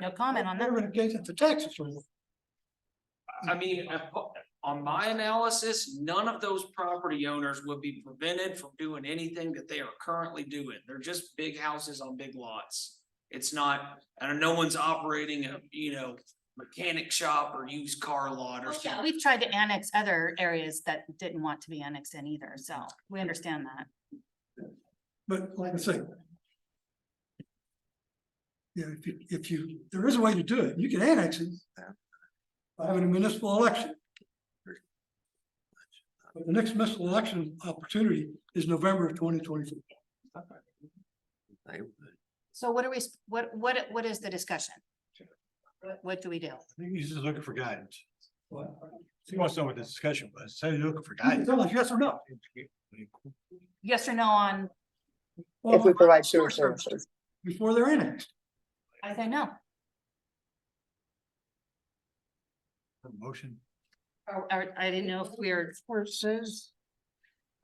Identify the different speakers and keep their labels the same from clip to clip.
Speaker 1: No comment on that.
Speaker 2: They're Renovated the taxes.
Speaker 3: I mean, I po- on my analysis, none of those property owners would be prevented from doing anything that they are currently doing. They're just big houses on big lots. It's not, and no one's operating a, you know, mechanic shop or used car lot or
Speaker 1: Oh, yeah,
Speaker 3: something.
Speaker 1: We've tried to annex other areas that didn't want to be annexed in either, so we understand that.
Speaker 2: But like I say. Yeah, if you, if you, there is a way to do it, you can annex it. By having a municipal election. But the next municipal election opportunity is November of twenty twenty-four.
Speaker 1: So what are we, s- what, what, what is the discussion? What, what do we do?
Speaker 4: I think he's just looking for guidance.
Speaker 2: Well,
Speaker 4: He wants to know what the discussion was. So he's looking for
Speaker 2: you can
Speaker 4: guidance.
Speaker 2: Tell us yes or no.
Speaker 1: Yes or no on,
Speaker 5: if we
Speaker 2: Well,
Speaker 5: provide sewer services.
Speaker 2: Before they're annexed.
Speaker 1: I say no,
Speaker 4: Motion.
Speaker 1: or, or Oh, I didn't know if we're,
Speaker 6: Where it says,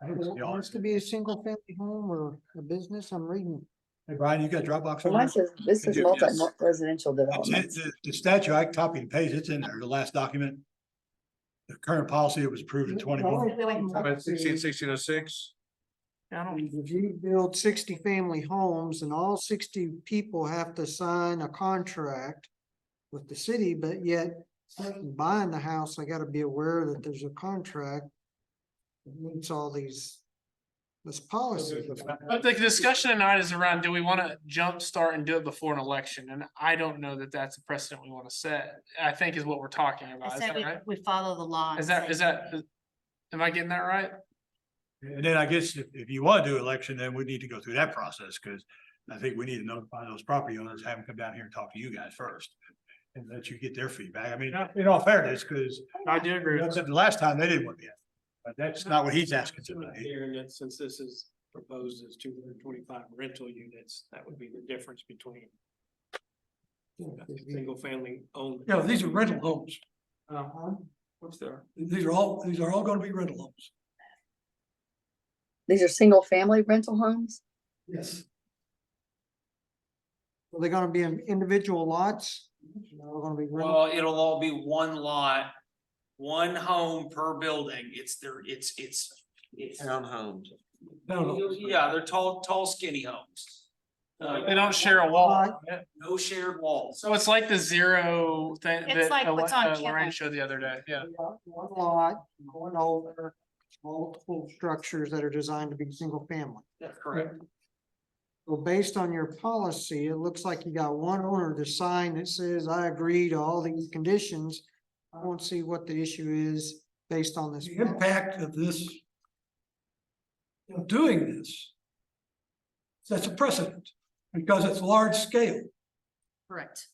Speaker 4: I think it's
Speaker 6: it
Speaker 4: the odds.
Speaker 6: wants to be a single family home or a business, I'm reading.
Speaker 4: Hey, Brian, you got Dropbox?
Speaker 5: So
Speaker 4: over
Speaker 5: mine
Speaker 4: there?
Speaker 5: says, this is
Speaker 4: Yeah, yes.
Speaker 5: multi-residential
Speaker 4: It's-
Speaker 5: development.
Speaker 4: it's- The the statute, I copied and pasted, it's in there, the last document. The current policy that was approved in twenty-one.
Speaker 7: About sixteen, sixteen oh six,
Speaker 1: I don't,
Speaker 6: If you build sixty family homes and all sixty people have to sign a contract with the city, but yet person buying the house, I gotta be aware that there's a contract. that meets all these, this policy.
Speaker 7: but the discussion tonight is around, do we wanna jumpstart and do it before an election? And I don't know that that's a precedent we wanna set, I think is what we're talking about,
Speaker 1: I
Speaker 7: is
Speaker 1: said
Speaker 7: that
Speaker 1: we,
Speaker 7: right?
Speaker 1: we follow the law. and
Speaker 7: Is that,
Speaker 1: say-
Speaker 7: is that, is- am I getting that right?
Speaker 4: And then I guess if, if you want to do election, then we need to go through that process, because I think we need to notify those property owners, have them come down here and talk to you guys first. And let you get their feedback. I mean, in all fairness, because
Speaker 7: I do agree.
Speaker 4: that's the last time they didn't want to be. But that's not what he's asking tonight.
Speaker 8: Hearing that since this is proposed as two hundred and twenty-five rental units, that would be the difference between single family owned.
Speaker 2: Yeah, these are rental homes.
Speaker 8: Uh-huh. What's there?
Speaker 2: These are all, these are all gonna be rental homes.
Speaker 5: These are single-family rental homes?
Speaker 2: Yes.
Speaker 6: Are they gonna be in individual lots? No, they're gonna be. rental.
Speaker 3: Well, it'll all be one lot, one home per building. It's their, it's, it's, it's.
Speaker 7: Townhomes.
Speaker 3: Yeah, they're tall, tall skinny homes. Uh,
Speaker 7: They don't share a wall,
Speaker 3: no shared walls.
Speaker 7: so it's like the zero thing
Speaker 1: It's
Speaker 7: that
Speaker 1: like
Speaker 7: uh,
Speaker 1: what's on
Speaker 7: uh,
Speaker 1: camera.
Speaker 7: Lorraine showed the other day, yeah.
Speaker 6: One lot, one over, multiple structures that are designed to be single family.
Speaker 3: That's correct.
Speaker 6: Well, based on your policy, it looks like you got one owner to sign that says, I agree to all these conditions. I don't see what the issue is based on this.
Speaker 2: The impact of this. Of doing this. That's a precedent, because it's large scale,
Speaker 1: Correct.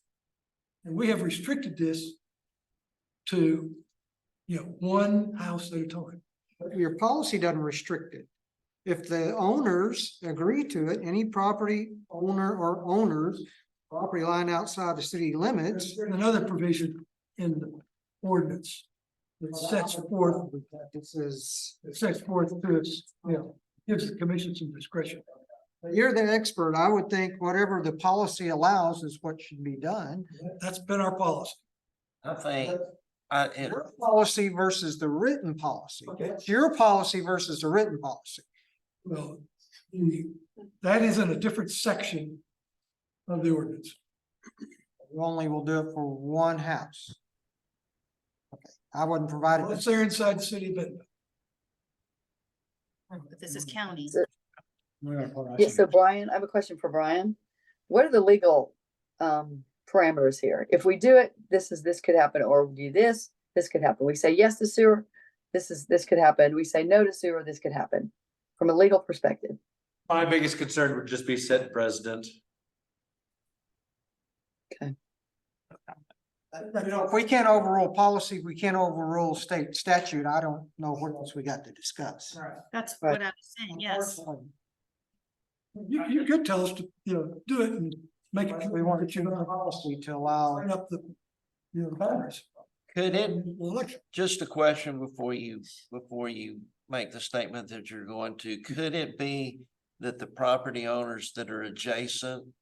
Speaker 2: and we have restricted this. To, you know, one house at a time.
Speaker 6: Your policy doesn't restrict it. If the owners agree to it, any property owner or owners, property line outside the city limits.
Speaker 2: There's another provision in the ordinance. That sets forth,
Speaker 6: This is,
Speaker 2: that sets forth to its, you know, gives the commission some discretion.
Speaker 6: you're the expert. I would think whatever the policy allows is what should be done.
Speaker 2: That's been our policy.
Speaker 9: I think, I, it,
Speaker 6: Your Policy versus the written policy.
Speaker 2: Okay.
Speaker 6: It's your policy versus the written policy.
Speaker 2: Well, the- that is in a different section of the ordinance.
Speaker 6: You only will do it for one house. Okay, I wouldn't provide it.
Speaker 2: Once they're inside the city, but
Speaker 1: But This is county.
Speaker 5: Yeah, so Brian, I have a question for Brian. What are the legal um parameters here? If we do it, this is, this could happen, or we do this, this could happen. We say yes to sewer, this is, this could happen. We say no to sewer, this could happen. From a legal perspective,
Speaker 7: My biggest concern would just be set president.
Speaker 6: You know, If we can't overrule policy, we can't overrule state statute. I don't know what else we got to discuss.
Speaker 1: That's
Speaker 5: Right.
Speaker 1: what I was saying, yes.
Speaker 6: Unfortunately,
Speaker 2: you, you could tell us to, you know, do it and make it.
Speaker 6: We want to change the policy to allow.
Speaker 2: Line up the, you know, banners.
Speaker 9: could it,
Speaker 2: Election.
Speaker 9: just a question before you, before you make the statement that you're going to, could it be that the property owners that are adjacent